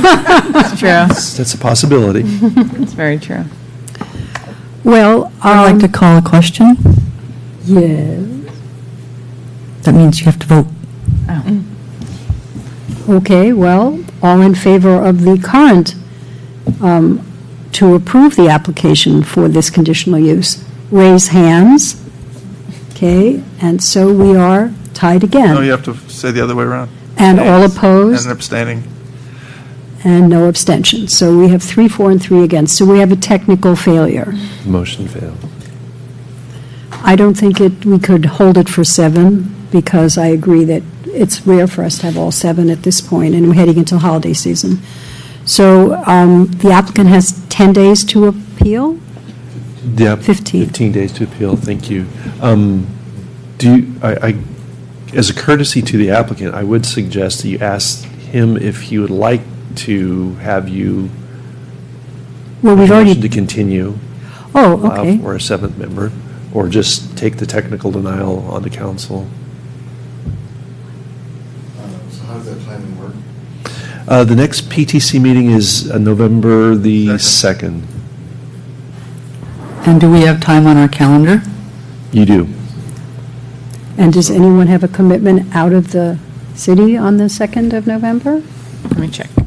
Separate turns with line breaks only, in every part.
It's true.
That's a possibility.
It's very true.
Well,
I'd like to
um,
call a question.
yes,
That means you have to vote.
okay, well, all in favor of the current, um, to approve the application for this conditional use, raise hands, okay? And so we are tied
No, you
again.
have to say the other way around.
And all
And
opposed,
abstaining.
and no abstention. So we have three, four, and three against, so we have a technical failure.
Motion failed.
I don't think it, we could hold it for seven, because I agree that it's rare for us to have all seven at this point, and we're heading into holiday season. So um, the applicant has 10 days to appeal?
Yep.
15.
15 days to appeal, thank you. Um, Do, you- I, I- as a courtesy to the applicant, I would suggest that you ask him if he would like to have you.
Well, we've
motion To
already,
continue.
oh,
allow
okay.
For a seventh member, or just take the technical denial onto council.
So how does that timing work?
Uh, The next PTC meeting is uh, November the
Second.
2nd.
And do we have time on our calendar?
You do.
And does anyone have a commitment out of the city on the 2nd of November?
Let me check.
And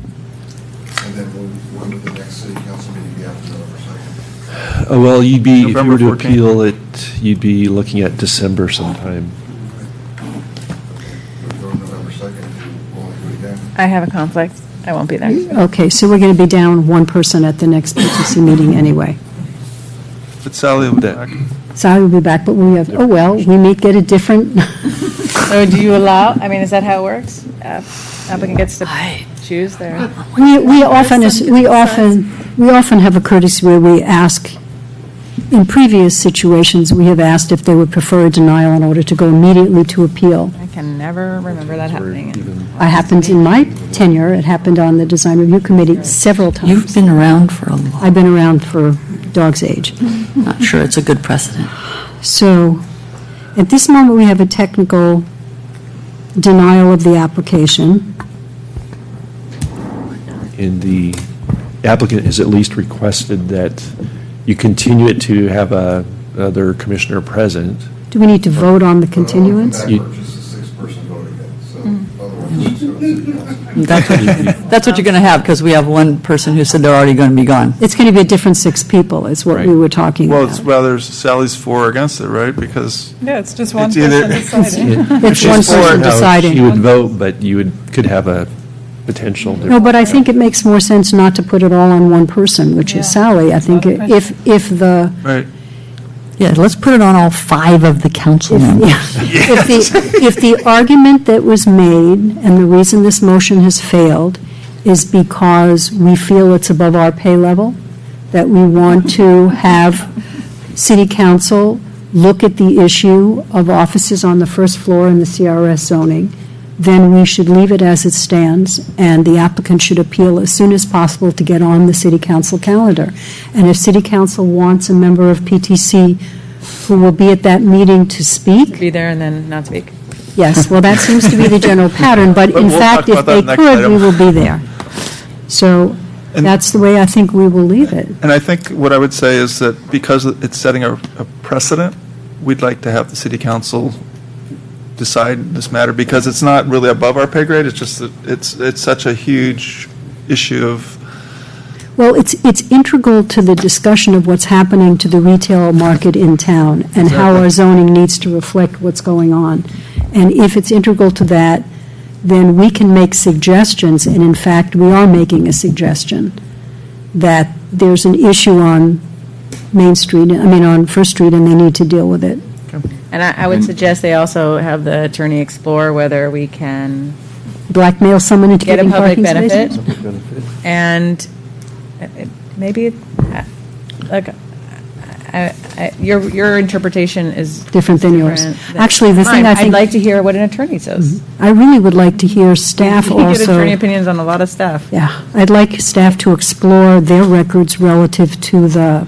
then when, when would the next city council meeting be after November second?
Uh, Well, you'd be, if you were to
November 14th.
appeal it, you'd be looking at December sometime.
Would it go to November second, you only do it again?
I have a conflict. I won't be there.
Okay, so we're going to be down one person at the next PTC meeting anyway.
But Sally will be
That-
back.
Sally will be back, but we have, oh, well, we may get a different,
So do you allow, I mean, is that how it works? Uh, Applicant gets to choose their,
We, we often, is- we often, we often have a courtesy where we ask, in previous situations, we have asked if they would prefer a denial in order to go immediately to appeal.
I can never remember that
Or
happening.
even-
It happened in my tenure, it happened on the design review committee several
You've
times.
been around for a long,
I've been around for dog's age.
I'm not sure it's a good precedent.
So, at this moment, we have a technical denial of the application.
And the applicant has at least requested that you continue it to have a, other commissioner present.
Do we need to vote on the continuance?
That purchase is six-person vote again, so otherwise it's just going to city council.
That's what, that's what you're going to have, because we have one person who said they're already going to be gone.
It's going to be a different six people, is what we
Right.
were talking about.
Well, it's rather Sally's for or against it, right? Because
No, it's just
one It's either- person
deciding.
It's one
She's for it,
person
no,
deciding.
She would vote, but you would, could have a potential.
No, but I think it makes more sense not to put it all on one person, which is Sally. I think if, if the,
Right.
Yeah, let's put it on all five of the council members.
if the, if the argument that was made, and the reason this motion has failed, is because we feel it's above our pay level, that we want to have city council look at the issue of offices on the first floor in the CRS zoning, then we should leave it as it stands, and the applicant should appeal as soon as possible to get on the city council calendar. And if city council wants a member of PTC who will be at that meeting to speak,
Be there and then not speak.
yes, well, that seems to be the general pattern, but
But
in
we'll
fact,
talk
if
about
they
that next
could, we
item.
will be there. So
And-
that's the way I think we will leave it.
And I think what I would say is that because it's setting a a precedent, we'd like to have the city council decide this matter because it's not really above our pay grade. It's just that it's, it's such a huge issue of
Well, it's, it's integral to the discussion of what's happening to the retail market in town and how our zoning needs to reflect what's going on. And if it's integral to that, then we can make suggestions, and in fact, we are making a suggestion that there's an issue on Main Street, I mean, on First Street, and they need to deal with it.
And I, I would suggest they also have the attorney explore whether we can
Blackmail someone into
get a
getting
public
parking spaces?
benefit And uh, uh, maybe, it- uh, look, I- I- your, your interpretation is.
Different than yours.
different than
Actually, the thing
mine.
I think-
I'd like to hear what an attorney says.
I really would like to hear staff
We
also.
get attorney opinions on a lot of stuff.
Yeah, I'd like staff to explore their records relative to the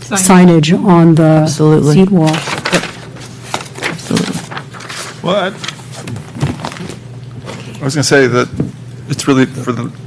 signage on the
Absolutely.
seat wall.
Well, I I was going to say that it's really for the